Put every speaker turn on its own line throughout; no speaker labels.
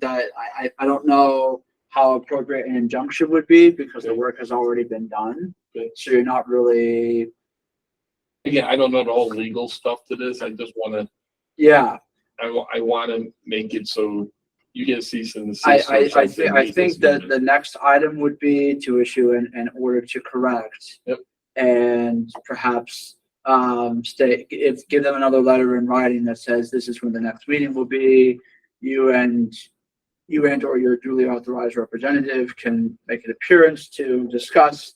that I, I, I don't know how appropriate an injunction would be because the work has already been done.
Okay.
So you're not really,
Again, I don't know the whole legal stuff to this. I just wanna,
yeah,
I wa- I wanna make it so you get a cease and desist. or
I, I, I
something
think, I
because
think that the next item would be to issue an, an order to correct.
Yep.
And perhaps, um, stay, if, give them another letter in writing that says this is when the next meeting will be. You and, you and or your duly authorized representative can make an appearance to discuss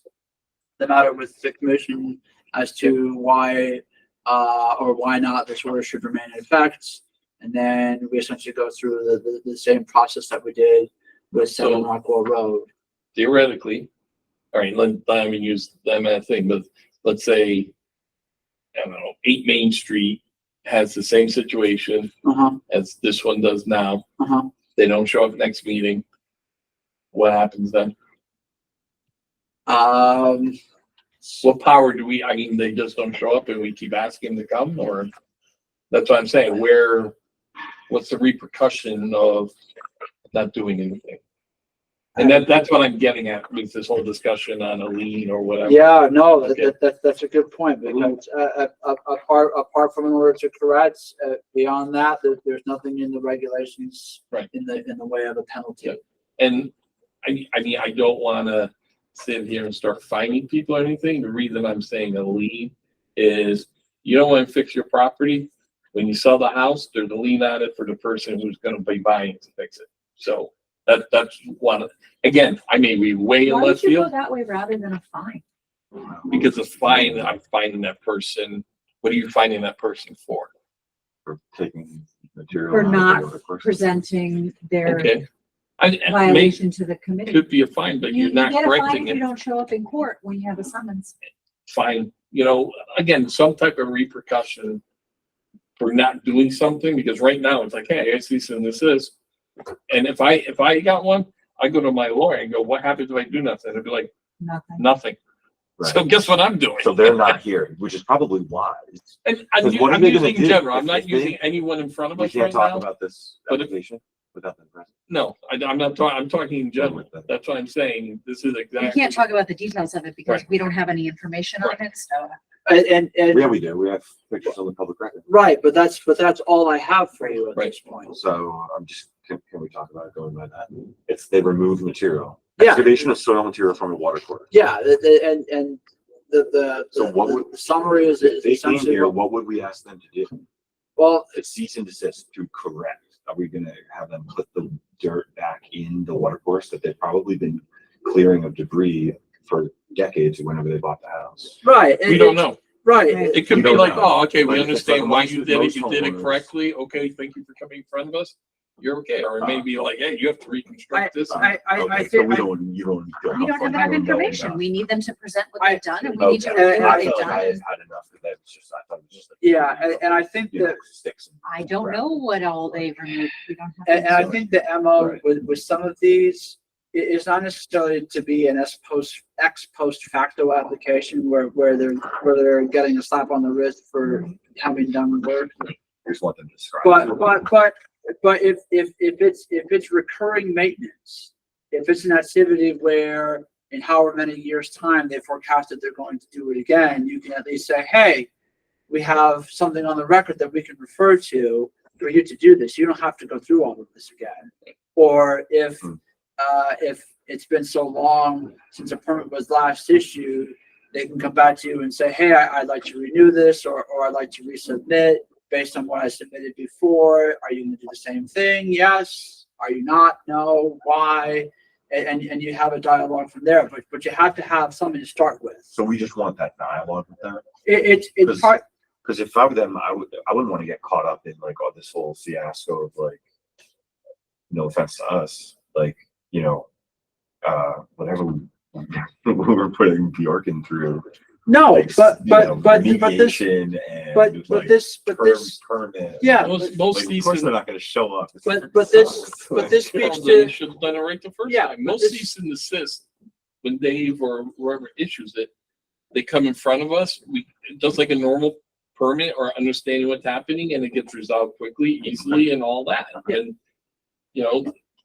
the matter with the commission as to why, uh, or why not this order should remain in effect. And then we essentially go through the, the, the same process that we did with Seven
So-
Rockwell Road.
Theoretically, all right, let, let me use that math thing, but let's say, I don't know, eight Main Street has the same situation
Uh-huh,
as this one does now.
uh-huh.
They don't show up next meeting. What happens then?
Um,
What power do we, I mean, they just don't show up and we keep asking them to come or? That's what I'm saying, where, what's the repercussion of not doing anything? And that, that's what I'm getting at with this whole discussion on a lien or whatever.
yeah, no, that,
Okay.
that, that's, that's a good point, because, uh, uh, a- apart, apart from an order to correct, uh, beyond that, there, there's nothing in the regulations
Right.
in the, in the way of a penalty.
Yeah. And I, I mean, I don't wanna sit here and start fining people or anything. The reason I'm saying a lien is you don't wanna fix your property. When you sell the house, there's a lien on it for the person who's gonna be buying to fix it. So that, that's one, again, I may be way in
Why
left
don't you go
field
that way rather than a fine?
because it's fine, I'm finding that person. What are you finding that person for?
for taking material.
For
out of the
not
other person's-
Presenting their
Okay. I, I may,
violation to the committee.
could be a fine, but
You
you're
you
not
get a fine
correcting
if
it.
you don't show up in court when you have a summons.
find, you know, again, some type of repercussion for not doing something, because right now it's like, hey, I see some this is. And if I, if I got one, I go to my lawyer and go, what happens if I do nothing? I'd be like,
Nothing.
nothing. So
Right.
guess what I'm doing?
So they're not here, which is probably wise.
And I'm,
Because
u-
what are
I'm
they gonna
using
do
general, I'm
if
not
they-
using anyone in front of
We
us
can't
right
talk
now.
about this
But if-
application without them present.
No, I, am not talking, I'm talking in general.
With them.
That's what I'm saying. This is
We
exactly.
can't talk about the details of it because we don't have any information on it, so.
And, and, and-
Yeah, we do. We have pictures on the public record.
right, but that's, but that's all I have for you at
Right.
this point.
So I'm just, can, can we talk about it going by that? It's they remove material.
Yeah.
Excavation of soil material from a water course.
Yeah, the- the- and, and the, the,
So what
the-
would-
the summary is
If
is
they came
essentially,
here,
what-
what would we ask them to do?
well,
To cease and desist, to correct. Are we gonna have them put the dirt back in the water course that they've probably been clearing of debris for decades whenever they bought the house?
right.
We don't know.
Right.
Right.
It could
You
be
don't
like,
know.
oh, okay, we
Like, it's
understand
like
why
most-
you did it,
most
you did it
homeowners-
correctly, okay, thank you for coming in front of us. You're okay, or
Uh,
maybe like, hey, you have to reconstruct this.
I, I, I
Okay, so
think,
we
I-
don't, you don't. feel
We don't have
comfortable
enough
knowing
information.
that.
We need them to present what
I-
they've done and we need
Okay,
to
and
review what
I
they've
felt like I had
done.
had enough of that. It's just, I thought it was just. a-
yeah, and, and I think
You know,
that,
sticks and-
I don't know what all they've removed. We don't have.
and, and I
any-
think the MO
Right.
with, with some of these, i- is not necessarily to be an ex post, ex post facto application where, where they're, where they're getting a slap on the wrist for having done the work.
I Just want them to describe.
But, but, but, but if, if, if it's, if it's recurring maintenance, if it's an activity where in however many years' time they forecast that they're going to do it again, you can at least say, hey, we have something on the record that we can refer to for you to do this. You don't have to go through all of this again. Or if,
Hmm.
uh, if it's been so long since a permit was last issued, they can come back to you and say, hey, I, I'd like to renew this or, or I'd like to resubmit based on what I submitted before, are you gonna do the same thing? Yes. Are you not? No. Why? And, and, and you have a dialogue from there, but, but you have to have something to start with.
So we just want that dialogue with them,
It, it's, it's part,
because if I were them, I would, I wouldn't want to get caught up in like, oh, this whole fiasco of like, no offense to us, like, you know, uh, whatever we we were putting Bjorken through.
no,
like, s-
Oh, but,
you know,
but, but, but this,
remediation and,
but, but
like,
this, but
per-
this,
Permit.
yeah,
Most,
Like,
most
of
cease
course they're
and.
not gonna show up. It's
but,
like-
but this, but this
Well,
speaks
they
to,
should have done it right the first
Yeah,
time.
but
Most
this-
cease and desist, when Dave or whoever issues it, they come in front of us, we, just like a normal permit or understanding what's happening and it gets resolved quickly, easily and all that. And, you know,